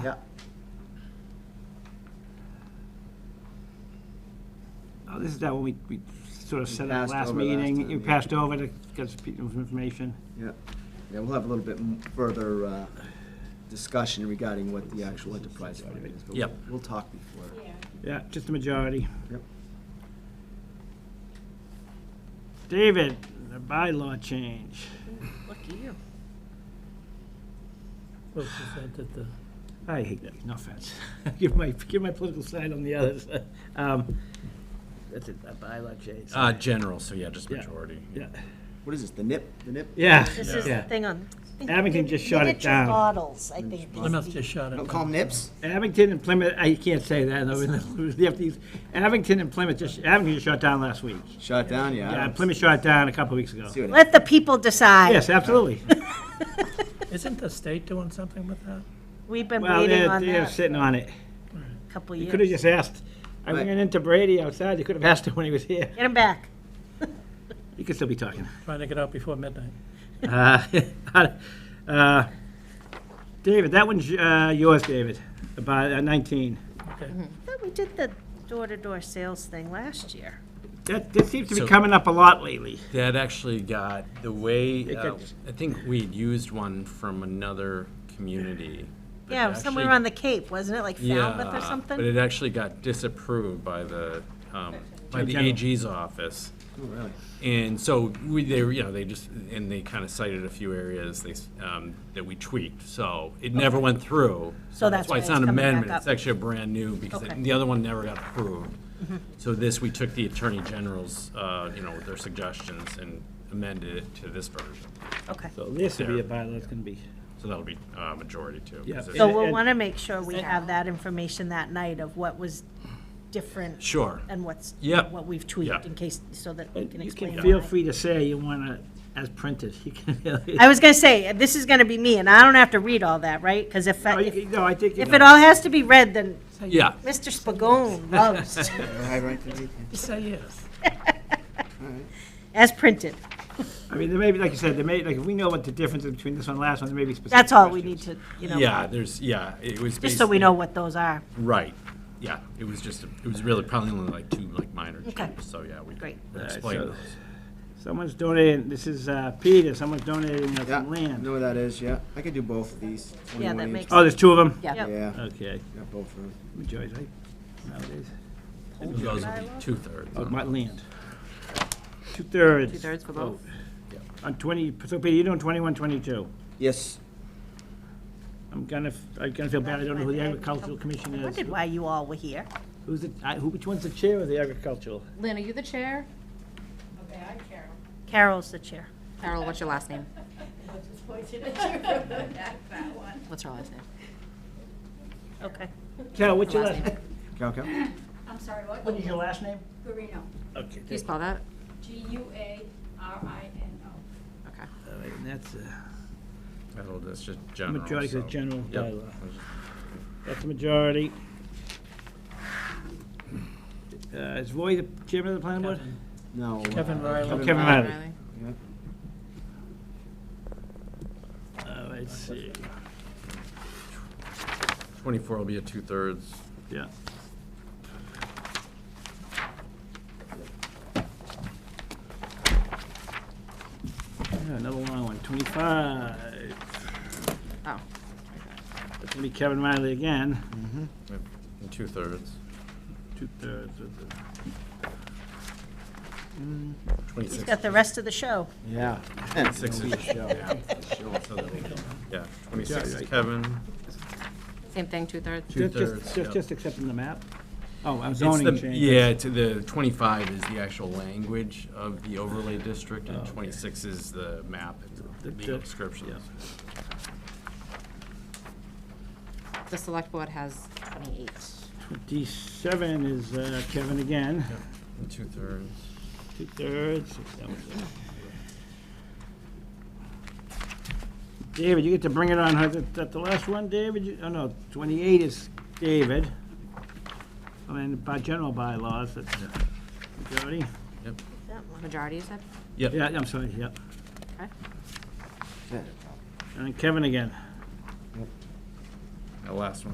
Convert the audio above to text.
Yeah, Oh, this is that one we, we sort of We set up passed last over last meeting, time, you yeah. passed over to get some people some information. yeah. Yeah, we'll have a little bit m- further uh, discussion regarding what the actual enterprise agreement is. but Yep. we'll- We'll talk before. Yeah. Yeah, just the majority. Yep. David, the bylaw change. Lucky you. Well, presented the, I hate that, no offense. Give my, give my political side on the others. Um, That's it, a bylaw change. Uh, general, so yeah, just Yeah. majority. Yeah, What is this, the NIP, the NIP? yeah. This is the Yeah. thing on. Abington just shut it Miniature down. bottles, I think. is Plymouth the- just shot it. Don't call them NIPs? Abington and Plymouth, I can't say that, though, the FDs, Abington and Plymouth just, Abington just shut down last week. Shot down, yeah. I Yeah, don't Plymouth shut it down a couple of weeks ago. see what Let the people decide. Yes, absolutely. Isn't the state doing something with that? We've been Well, waiting they're, on they're that sitting on it. a couple You could have years. just asked, I Right. ran into Brady outside, you could have asked him when he was here. Get them back. You could still be talking. Trying to get out before midnight. Uh, uh, David, that one's uh, yours, David, about uh, 19. Okay. I thought we did the door-to-door sales thing last year. That, that seems to be So- coming up a lot lately. That actually got, the way, It uh, gets- I think we'd used one from another community. but it Yeah, somewhere actually- on the Cape, wasn't it? Like Falmouth Yeah, or something? But it actually got disapproved by the, um, by the General. AG's office. Oh, really? And so we, they, were, you know, they just, and they kind of cited a few areas they, s- um, that we tweaked, so it never went through. So that's why it's it's not an coming back amendment. up. It's actually a brand new, because Okay. Mm-hmm. it- the other one never got approved. So this, we took the Attorney General's, uh, you know, their suggestions and amended it to this version. Okay. So this would be a bylaw that's going to be, So that'll be, uh, majority too. 'cause Yeah. it's- So And- we'll and- want to make sure we have that information that night of what was different Sure, and what's, Yep. what we've Yeah. tweaked in case, so that we and can you explain. can why. feel free to say you want to, as printed, you can. I was going to say, this is going to be me, and I don't have to read all that, right? Because if, No, I- Oh, you if can- No, I think. you if know. it all has to be read, then yeah, Mr. Spagone loves, Hi, right, good evening. Say yes. as printed. I mean, there may be, like you said, there may, like, if we know what the difference is between this one and last one, there may be specific. That's all we need questions. to, you know. yeah, there's, yeah, it was Just so we basically- know what those are. Right, yeah, it was just, a- it was really probably only like two, like minor Okay. changes, so yeah, we Great. we All right, explained so- those. Someone's donating, this is uh, Peter, someone's donating us Yeah, some know land. where that is, yeah. I could do both of these. Yeah, that 21 each. makes- Oh, there's two of them? Yeah. Yeah, Okay, yeah, both of them. majority, right? Nowadays. Those would be two-thirds. Oh, my land. Two-thirds. Two-thirds for both? vote. On 20, so Peter, you're doing 21, 22. Yes, I'm gonna, f- I'm gonna feel bad, I don't know who the agricultural commission I is. wondered why you all were here. Who's the, I- who, which one's the chair of the agricultural? Lynn, are you the chair? Carol's the chair. Carol, what's your last name? What's her last name? Okay. Carol, what's your Last last? cow, cow. I'm sorry, what? What is your last name? Guarino, Okay. Can you spell that? G-U-A-R-I-N-O. Okay. All right, and that's, uh, That'll, that's just general. Majority is so- general Yep. bylaw. that's the majority. Uh, is Roy the chairman of the planning board? No. uh, Kevin Riley. Oh, Kevin Riley. Riley. Uh, let's see, Twenty-four will be a two-thirds. yeah. Yeah, Another long one, 25. Oh. That's gonna be Kevin Riley again, Yep, And two-thirds. two-thirds of the, He's Twenty-six. got the rest of the show. Yeah. Six is, yeah, so that'll be- yeah, twenty-six is right. Kevens Same thing, two-thirds? just, two-thirds. just- just, yep. just accepting the map? Oh, I'm It's zoning the- change. Yeah, to the, twenty-five is the actual language of the overlay district, and Oh, okay. twenty-six is the map, and The- legal the- descriptions. The select board has twenty-eight. Twenty-seven is uh, Kevin again, And Two-thirds. two-thirds. that was it. David, you get to bring it on, huh? that, that the last one, David, You- oh no, twenty-eight is David. And then by general bylaws, that's majority. That one. Majority, you said? Yep. Yeah, I'm sorry, yep. Okay. Yeah. And then Kevin again. The last one